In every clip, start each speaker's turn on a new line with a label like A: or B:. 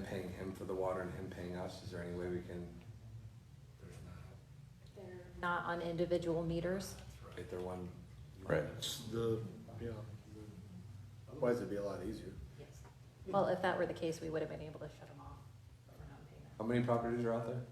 A: paying him for the water and him paying us, is there any way we can? There's not,
B: They're Not on individual meters?
A: right, they're one.
C: Right.
D: It's the, yeah. the- Otherwise, it'd be a lot easier.
B: Well, if that were the case, we would have been able to shut them off. but we're not paying them.
A: How many properties are out there?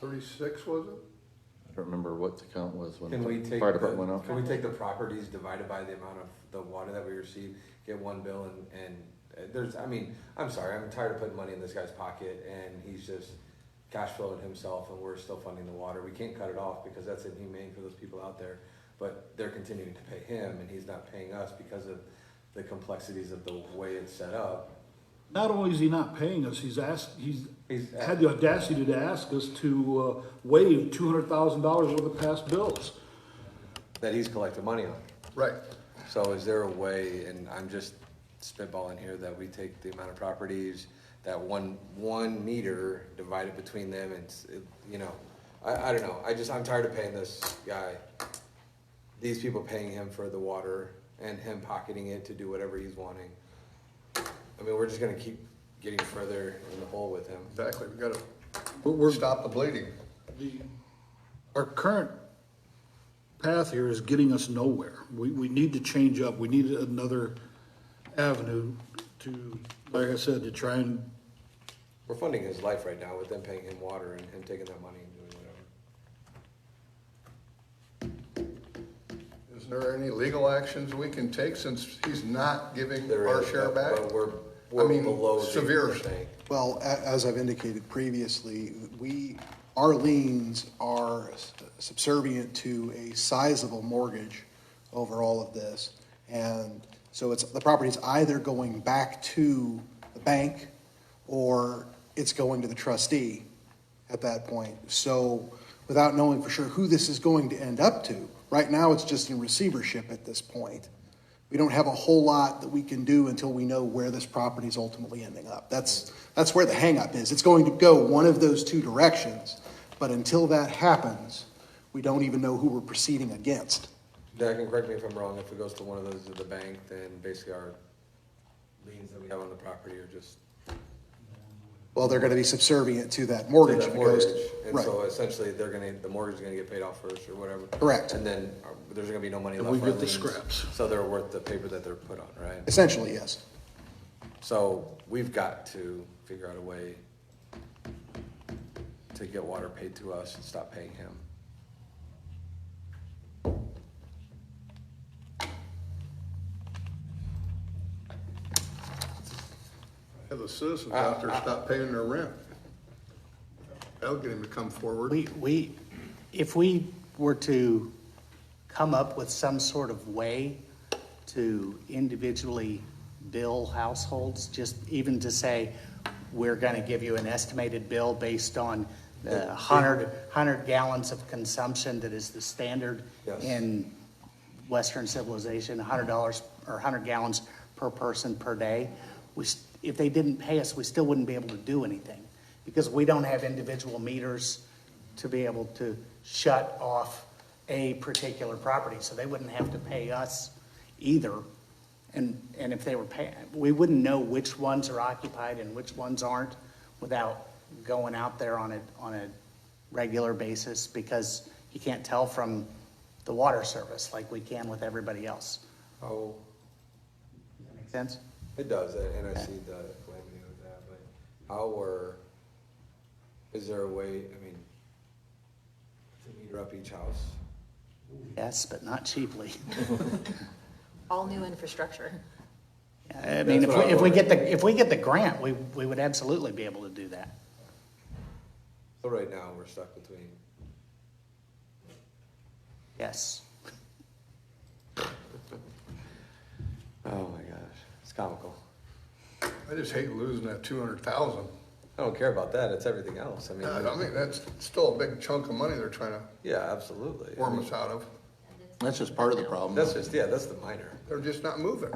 D: Thirty-six, was it?
C: I don't remember what the count was when
A: Can we
C: the
A: take,
C: fire department went
A: the-
C: off.
A: can we take the properties divided by the amount of the water that we receive, get one bill and, and uh, there's, I mean, I'm sorry, I'm tired of putting money in this guy's pocket and he's just cash flowing himself and we're still funding the water. We can't cut it off because that's inhumane for those people out there. But they're continuing to pay him and he's not paying us because of the complexities of the way it's set up.
E: Not only is he not paying us, he's asked, he's
A: He's-
E: had the audacity to ask us to uh, waive two hundred thousand dollars worth of past bills.
A: That he's collecting money on.
D: Right.
A: So is there a way, and I'm just spitballing here, that we take the amount of properties, that one, one meter divided between them and, s- it- you know, I, I don't know, I just, I'm tired of paying this guy. These people paying him for the water and him pocketing it to do whatever he's wanting. I mean, we're just gonna keep getting further in the hole with him.
D: Exactly, we gotta, we're, stop the bleeding.
E: The- Our current path here is getting us nowhere. We, we need to change up. We need another avenue to, like I said, to try and,
A: We're funding his life right now with them paying him water and him taking that money and doing whatever.
F: Is there any legal actions we can take since he's not giving our
A: There is,
F: share
A: but-
F: back?
A: But we're,
F: I
A: we're
F: mean,
A: below the
F: severe.
A: the thing.
G: Well, a- as I've indicated previously, we, our liens are subservient to a sizable mortgage over all of this. And so it's, the property's either going back to the bank or it's going to the trustee at that point. So without knowing for sure who this is going to end up to, right now it's just in receivership at this point. We don't have a whole lot that we can do until we know where this property is ultimately ending up. That's, that's where the hangup is. It's going to go one of those two directions, but until that happens, we don't even know who we're proceeding against.
A: That can correct me if I'm wrong, if it goes to one of those at the bank, then basically our liens that we have on the property are just.
G: Well, they're going to be subservient to that mortgage.
A: to
G: if
A: that
G: it goes-
A: mortgage. And
G: Right.
A: so essentially, they're gonna, the mortgage is gonna get paid off first or whatever.
G: Correct.
A: And then uh, there's gonna be no money
E: And
A: left.
E: we
A: for our
E: get the
A: liens.
E: scraps.
A: So they're worth the paper that they're put on, right?
G: Essentially, yes.
A: So we've got to figure out a way to get water paid to us and stop paying him.
F: Have the citizens out there stop paying their rent. That'll get him to come forward.
H: We, we, if we were to come up with some sort of way to individually bill households, just even to say, we're gonna give you an estimated bill based on the hundred, hundred gallons of consumption that is the standard
A: Yes.
H: in Western civilization, hundred dollars or hundred gallons per person per day. We, s- if they didn't pay us, we still wouldn't be able to do anything because we don't have individual meters to be able to shut off a particular property. So they wouldn't have to pay us either. And, and if they were paying, we wouldn't know which ones are occupied and which ones aren't without going out there on a, on a regular basis because you can't tell from the water service like we can with everybody else.
A: Oh,
H: Does that make sense?
A: It does, and and I see the calamity with that, but how were, is there a way, I mean, to meter up each house?
H: Yes, but not cheaply.
B: All new infrastructure.
H: I mean, if
A: what
H: we,
A: I
H: if we get the, if we get the grant, we, we would absolutely be able to do that.
A: So right now, we're stuck between,
H: Yes.
A: oh my gosh, it's comical.
F: I just hate losing that two hundred thousand.
A: I don't care about that, it's everything else, I
F: I
A: mean,
F: mean, that's still a big chunk of money they're trying to
A: yeah, absolutely. I
F: worm
A: mean,
F: us out of.
C: That's just part of the problem.
A: That's just, yeah, that's the minor,
F: They're just not moving.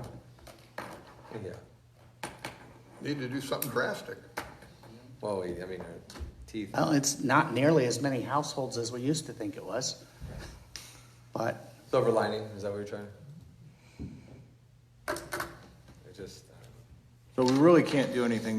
A: yeah.
F: Need to do something drastic.
A: Well, we- I mean, our teeth,
H: Well, it's not nearly as many households as we used to think it was. But
A: silver lining, is that what you're trying? to- It just, uh, I don't know.
C: So But we really can't do anything